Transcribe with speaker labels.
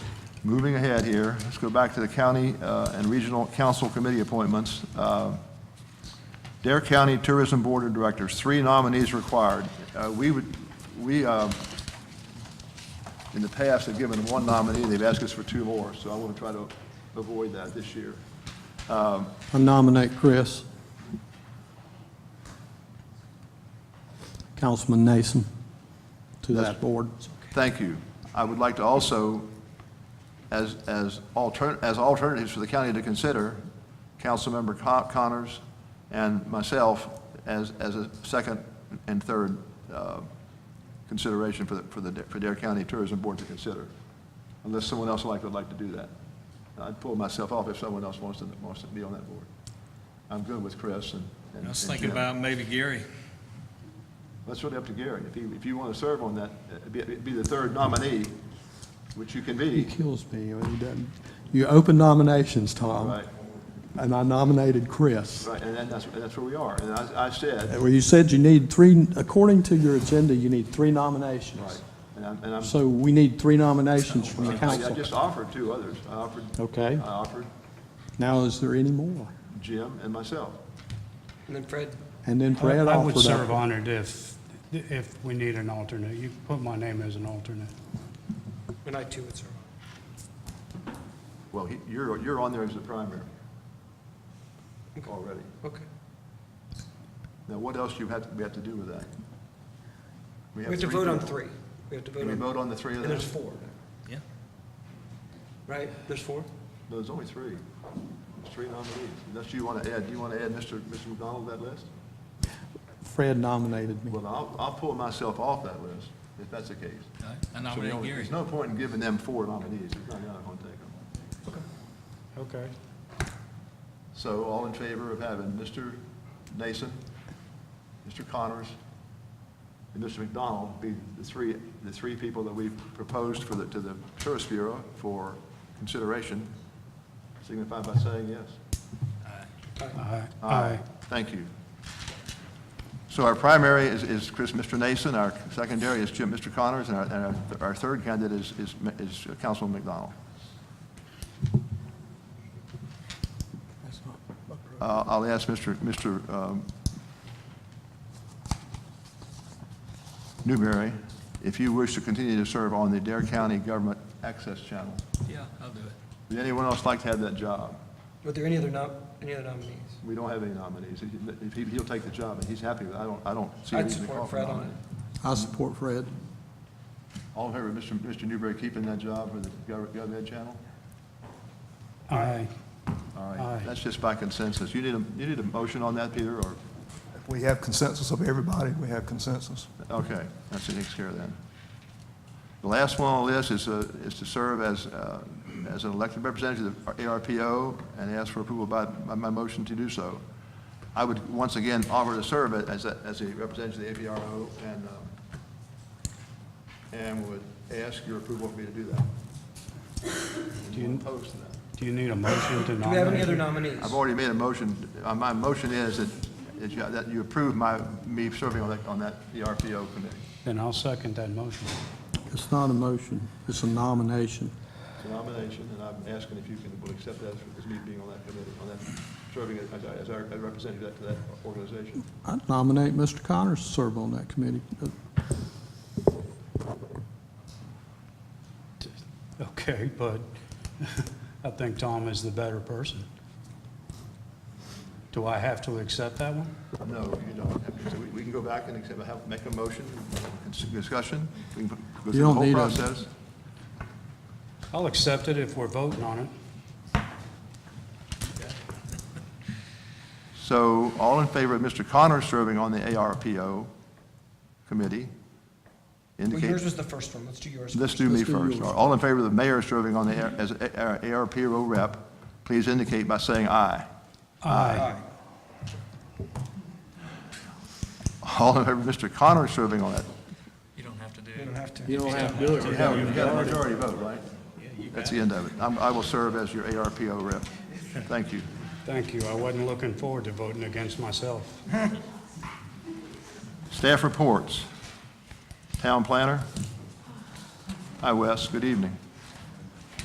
Speaker 1: Moving ahead here, let's go back to the county uh, and regional council committee appointments. Uh, Dare County Tourism Board of Directors, three nominees required. Uh, We would, we, uh, in the past, have given one nominee, they've asked us for two more, so I want to try to avoid that this year.
Speaker 2: I nominate Chris. Councilman Nason to that board.
Speaker 1: Thank you. I would like to also, as, as altern, as alternatives for the county to consider, Councilmember Con- Connors and myself as, as a second and third uh, consideration for the, for the, for Dare County Tourism Board to consider, unless someone else like would like to do that. I'd pull myself off if someone else wants to, wants to be on that board. I'm good with Chris and. and-
Speaker 3: I was
Speaker 1: and
Speaker 3: thinking
Speaker 1: Jim.
Speaker 3: about maybe Gary.
Speaker 1: That's really up to Gary. If you, if you want to serve on that, uh, be, be the third nominee, which you can be,
Speaker 2: He kills me when he doesn't. You open nominations, Tom,
Speaker 1: right?
Speaker 2: and I nominated Chris.
Speaker 1: Right, and then that's, that's where we are. And I, I said,
Speaker 2: Well, you said you need three, according to your agenda, you need three
Speaker 1: right,
Speaker 2: nominations.
Speaker 1: and I'm, and I'm.
Speaker 2: So we need three nominations from the
Speaker 1: I- I
Speaker 2: council.
Speaker 1: just offered two others. I offered.
Speaker 2: Okay.
Speaker 1: I offered
Speaker 2: Now, is there any more?
Speaker 1: Jim and myself.
Speaker 4: And then Fred,
Speaker 2: And then
Speaker 5: I
Speaker 2: Brad
Speaker 5: I would
Speaker 2: offered
Speaker 5: serve
Speaker 2: up.
Speaker 5: on it if, if we need an alternate. You can put my name as an alternate.
Speaker 4: and I too would serve.
Speaker 1: Well, he, you're, you're on there as the primary already.
Speaker 4: Okay.
Speaker 1: Now, what else you have, to- we have to do with that?
Speaker 4: We have to vote on three. We have to vote
Speaker 1: Can we
Speaker 4: on,
Speaker 1: vote on the three of
Speaker 4: and
Speaker 1: them?
Speaker 4: there's four,
Speaker 3: Yeah.
Speaker 4: right? There's four?
Speaker 1: No, there's only three. There's three nominees. Unless you want to add, do you want to add Mr. Mr. McDonald to that list?
Speaker 2: Fred nominated me.
Speaker 1: Well, I'll, I'll pull myself off that list, if that's the case.
Speaker 3: I
Speaker 1: So we
Speaker 3: nominate
Speaker 1: don't-
Speaker 3: Gary.
Speaker 1: There's no point in giving them four nominees, There's not- you're not gonna take them.
Speaker 5: Okay.
Speaker 1: So all in favor of having Mr. Nason, Mr. Connors, and Mr. McDonald be the three, the three people that we've proposed for the, to the Tourist Bureau for consideration, signify by saying yes.
Speaker 5: Aye.
Speaker 1: Aye.
Speaker 5: Aye.
Speaker 1: Thank you. So our primary is, is Chris, Mr. Nason, our secondary is Jim, Mr. Connors, and our, and our- our third candidate is, is, is Councilman McDonald. Uh, I'll ask Mr. Mr. um, Newberry if you wish to continue to serve on the Dare County Government Access Channel.
Speaker 3: Yeah, I'll do it.
Speaker 1: Would anyone else like to have that job?
Speaker 4: Were there any other nom, any other nominees?
Speaker 1: We don't have any nominees. If he- He'll take the job, and he's happy with it. I don't, I don't see a
Speaker 4: I'd
Speaker 1: reason to call
Speaker 4: support
Speaker 1: for
Speaker 4: Fred on
Speaker 1: nominee.
Speaker 4: it.
Speaker 2: I support Fred.
Speaker 1: All in favor of Mr. Mr. Newberry keeping that job for the Gov- GovEd channel?
Speaker 5: Aye.
Speaker 1: All right,
Speaker 5: Aye.
Speaker 1: that's just by consensus. You need a, you need a motion on that, Peter, or,
Speaker 6: If we have consensus of everybody, we have consensus.
Speaker 1: okay, that's the next care of that. The last one on the list is, uh, is to serve as, uh, as an elected representative of the ARPO and ask for approval by, by my motion to do so. I would once again offer to serve as, a- as a representative of the APRO and, um, and would ask your approval for me to do that.
Speaker 5: Do you-
Speaker 1: Opposed to that?
Speaker 5: Do you need a motion to nominate?
Speaker 4: Do we have any other
Speaker 5: you?
Speaker 4: nominees?
Speaker 1: I've already made a motion, Uh, my motion is that, that you- that you approve my, me serving on that, on that, E the RPO committee.
Speaker 5: Then I'll second that motion.
Speaker 2: It's not a motion, it's a nomination.
Speaker 1: It's a nomination, and I'm asking if you can, will accept that as me being on that committee, on that, serving as, as our as representative to that organization.
Speaker 2: I nominate Mr. Connors to serve on that committee.
Speaker 5: Okay, but I think Tom is the better person. Do I have to accept that one?
Speaker 1: No, you don't have to, So we, we can go back and accept, have, make a motion, cons- discussion, we can go through the
Speaker 2: don't
Speaker 1: whole
Speaker 2: need a-
Speaker 1: process.
Speaker 5: I'll accept it if we're voting on it.
Speaker 1: So, all in favor of Mr. Connor serving on the ARPO committee?
Speaker 4: Well,
Speaker 1: indicate.
Speaker 4: yours was the first one. Let's do yours.
Speaker 1: Let's do me
Speaker 2: Let's do
Speaker 1: first.
Speaker 2: yours.
Speaker 1: All in favor of the mayor serving on the, A- as A- our ARPO rep, please indicate by saying aye.
Speaker 5: Aye.
Speaker 1: All in favor of Mr. Connor serving on it.
Speaker 3: You don't have to do
Speaker 4: You don't
Speaker 3: it.
Speaker 4: have to.
Speaker 2: You don't have to do it.
Speaker 1: You have, you got a majority vote, right? That's the end of it. I'm, I will serve as your ARPO rep. Thank you.
Speaker 5: Thank you. I wasn't looking forward to voting against myself.
Speaker 1: Staff reports. Town planner. Hi, Wes. Good evening.